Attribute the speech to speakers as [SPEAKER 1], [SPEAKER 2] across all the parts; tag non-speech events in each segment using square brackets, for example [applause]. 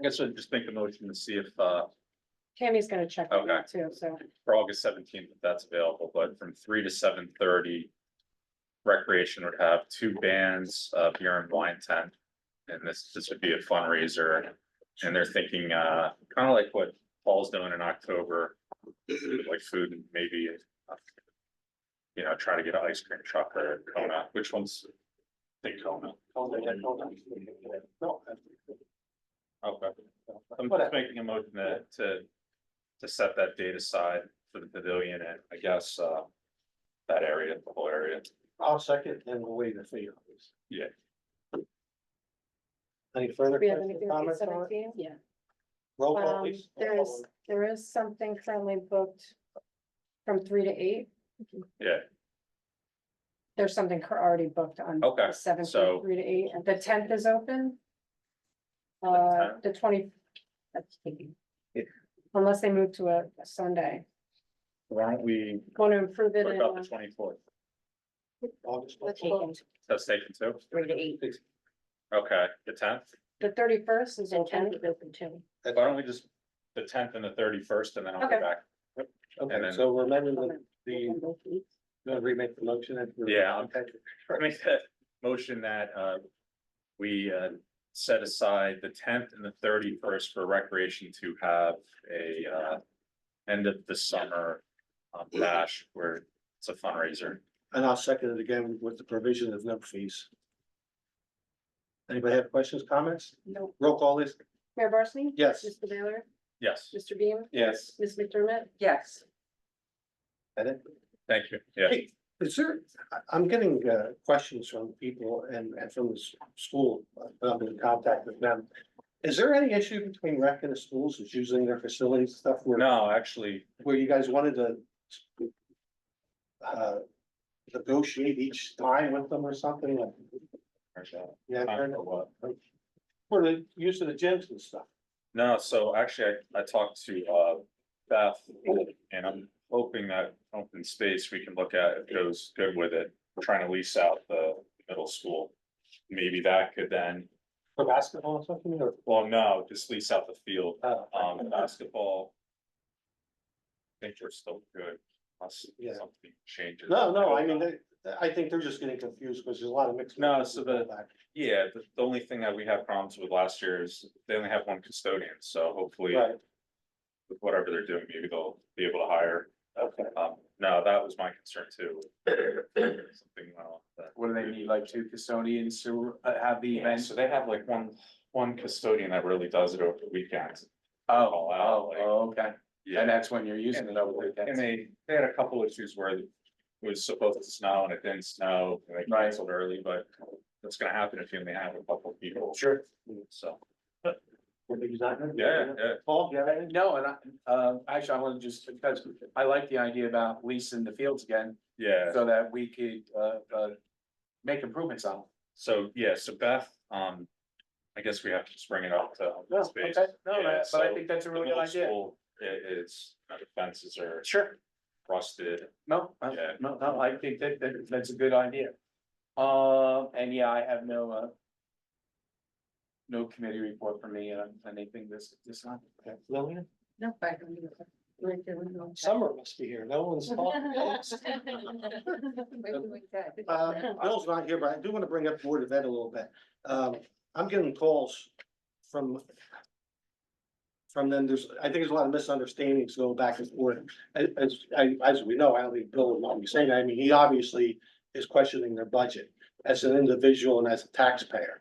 [SPEAKER 1] I guess I'll just make a motion to see if, uh,
[SPEAKER 2] Tammy's gonna check on that too, so.
[SPEAKER 1] for August seventeenth, if that's available, but from three to seven thirty. Recreation would have two bands, uh, beer and wine tent, and this, this would be a fundraiser. And they're thinking, uh, kind of like what Paul's doing in October, like food and maybe. uh, You know, try to get an ice cream truck or Kona, which one's? I think Kona. Okay, I'm just making a motion to, to to set that date aside for the pavilion and I guess, uh, that area, the whole area.
[SPEAKER 3] I'll second and we'll waive the fee. obviously.
[SPEAKER 1] Yeah.
[SPEAKER 3] Any further
[SPEAKER 2] We have
[SPEAKER 3] questions,
[SPEAKER 2] anything for
[SPEAKER 3] comments on it?
[SPEAKER 2] seventeen? Yeah.
[SPEAKER 3] Roll call
[SPEAKER 2] Um,
[SPEAKER 3] please.
[SPEAKER 2] there is, there is something currently booked from three to eight.
[SPEAKER 1] Yeah,
[SPEAKER 2] There's something cur- already booked on
[SPEAKER 1] Okay,
[SPEAKER 2] the seventh,
[SPEAKER 1] so-
[SPEAKER 2] from three to eight, and the tenth is open. Uh,
[SPEAKER 1] 10th?
[SPEAKER 2] the twenty. that's taken. Unless they move to a a Sunday,
[SPEAKER 1] why don't we,
[SPEAKER 2] want to improve it
[SPEAKER 1] what
[SPEAKER 2] in.
[SPEAKER 1] about the
[SPEAKER 2] uh,
[SPEAKER 1] twenty fourth?
[SPEAKER 3] August
[SPEAKER 4] Let's
[SPEAKER 3] fourth.
[SPEAKER 4] take them
[SPEAKER 1] That's taken too?
[SPEAKER 4] three to eight,
[SPEAKER 1] Okay, the tenth?
[SPEAKER 2] The thirty first is
[SPEAKER 4] and ten
[SPEAKER 2] open,
[SPEAKER 4] is open too.
[SPEAKER 1] Why don't we just, the tenth and the thirty first and then I'll be
[SPEAKER 2] Okay.
[SPEAKER 1] back. and
[SPEAKER 3] Okay,
[SPEAKER 1] then-
[SPEAKER 3] so we're amending the, the,
[SPEAKER 4] Open both weeks.
[SPEAKER 3] gonna remake the motion. and we're-
[SPEAKER 1] Yeah.
[SPEAKER 3] Okay.
[SPEAKER 1] I make that motion that, uh, we, uh, set aside the tenth and the thirty first for recreation to have a, uh, end of the summer, um, bash where it's a fundraiser.
[SPEAKER 3] And I'll second it again with the provision of no fees. Anybody have questions, comments?
[SPEAKER 2] no,
[SPEAKER 3] Roll call is,
[SPEAKER 2] Mayor Barsney?
[SPEAKER 3] Yes.
[SPEAKER 2] Mr. Baylor?
[SPEAKER 1] Yes,
[SPEAKER 2] Mr. Beam?
[SPEAKER 3] yes.
[SPEAKER 2] Ms. McDermott?
[SPEAKER 4] Yes.
[SPEAKER 3] And it-
[SPEAKER 1] thank you. Yeah,
[SPEAKER 3] Hey, Is there, I, I'm getting, uh, questions from people and, and from the s- school, uh, I'm in contact with them. Is there any issue between rec and the schools is using their facilities and stuff where,
[SPEAKER 1] no, actually,
[SPEAKER 3] where you guys wanted to uh, negotiate each time with them or something like, yeah,
[SPEAKER 1] Time
[SPEAKER 3] kind
[SPEAKER 1] for
[SPEAKER 3] of,
[SPEAKER 1] what?
[SPEAKER 3] for the use of the gyms and stuff.
[SPEAKER 1] No, so actually, I, I talked to, uh, Beth, and I'm hoping that open space we can look at if goes good with it. We're trying to lease out the middle school. Maybe that could then,
[SPEAKER 3] For basketball or something, or,
[SPEAKER 1] well, no, just lease out the field,
[SPEAKER 3] uh,
[SPEAKER 1] um, basketball. I think we're still good, unless
[SPEAKER 3] Yeah.
[SPEAKER 1] something changes.
[SPEAKER 3] no, no, I mean, they, I think they're just getting confused because there's a lot of mixed.
[SPEAKER 1] No, so the- Yeah, the, the only thing that we had problems with last year is they only have one custodian, so hopefully
[SPEAKER 3] Right,
[SPEAKER 1] with whatever they're doing, maybe they'll be able to hire.
[SPEAKER 3] okay.
[SPEAKER 1] Um, no, that was my concern too. Something went off that.
[SPEAKER 5] What do they need, like two custodians to uh, have the
[SPEAKER 1] Yeah,
[SPEAKER 5] event?
[SPEAKER 1] so they have like one, one custodian that really does it over the weekends.
[SPEAKER 5] Oh,
[SPEAKER 1] all out,
[SPEAKER 5] oh,
[SPEAKER 1] like-
[SPEAKER 5] oh, okay. And
[SPEAKER 1] Yeah,
[SPEAKER 5] that's when you're using it over the
[SPEAKER 1] and
[SPEAKER 5] weekend.
[SPEAKER 1] they, they had a couple issues where it was supposed to snow and it didn't snow, and they
[SPEAKER 5] Right.
[SPEAKER 1] canceled early, but that's gonna happen if you only have a couple of people,
[SPEAKER 3] Sure.
[SPEAKER 1] so, yeah,
[SPEAKER 3] Yeah.
[SPEAKER 1] yeah.
[SPEAKER 3] Paul, yeah,
[SPEAKER 5] No, and I, uh, actually, I want to just, because I like the idea about leasing the fields again,
[SPEAKER 1] Yeah,
[SPEAKER 5] so that we could, uh, uh, make improvements on. them.
[SPEAKER 1] so, yeah, so Beth, um, I guess we have to just bring it up to. open
[SPEAKER 5] No, okay,
[SPEAKER 1] space.
[SPEAKER 5] no,
[SPEAKER 1] Yeah,
[SPEAKER 5] that- but I
[SPEAKER 1] so
[SPEAKER 5] think that's a
[SPEAKER 1] the
[SPEAKER 5] really good
[SPEAKER 1] middle
[SPEAKER 5] idea.
[SPEAKER 1] school, It, it's, the fences are
[SPEAKER 5] Sure.
[SPEAKER 1] rusted,
[SPEAKER 5] No, uh,
[SPEAKER 1] Yeah.
[SPEAKER 5] no, no, I think that, that, that's a good idea. Uh, and yeah, I have no, uh, no committee report for me, uh, anything this, this time.
[SPEAKER 3] Lillian,
[SPEAKER 4] No, back on you. Right there, we go.
[SPEAKER 3] summer must be here, no
[SPEAKER 2] [laughs]
[SPEAKER 3] one's talking.
[SPEAKER 4] Wait, wait, wait,
[SPEAKER 3] Uh,
[SPEAKER 4] that-
[SPEAKER 3] Bill's not here, but I do want to bring up Board of Ed a little bit. Um, I'm getting calls from from them, there's, I think there's a lot of misunderstandings going back and forth. As, as, I- as we know, I don't think Bill would want me saying, that. I mean, he obviously is questioning their budget as an individual and as a taxpayer.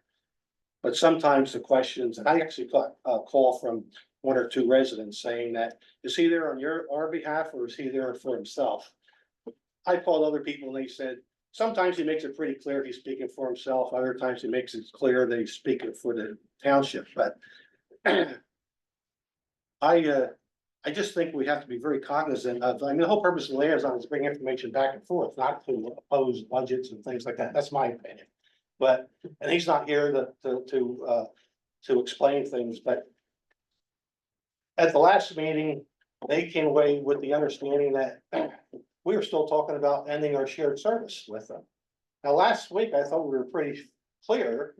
[SPEAKER 3] But sometimes the questions, and I actually got a call from one or two residents saying that, is he there on your, our behalf or is he there for himself? I called other people and they said, sometimes he makes it pretty clear he's speaking for himself, other times he makes it clear that he's speaking for the township, but [clears throat] I, uh, I just think we have to be very cognizant of, I mean, the whole purpose of liaison is to bring information back and forth, not to oppose budgets and things like that, that's my opinion. But, and he's not here to, to, to, uh, to explain things, but at the last meeting, they came away with the understanding that [clears throat] we were still talking about ending our shared service with them. Now, last week, I thought we were pretty clear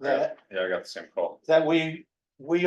[SPEAKER 3] that,
[SPEAKER 1] yeah, I got the same call.
[SPEAKER 3] that we, we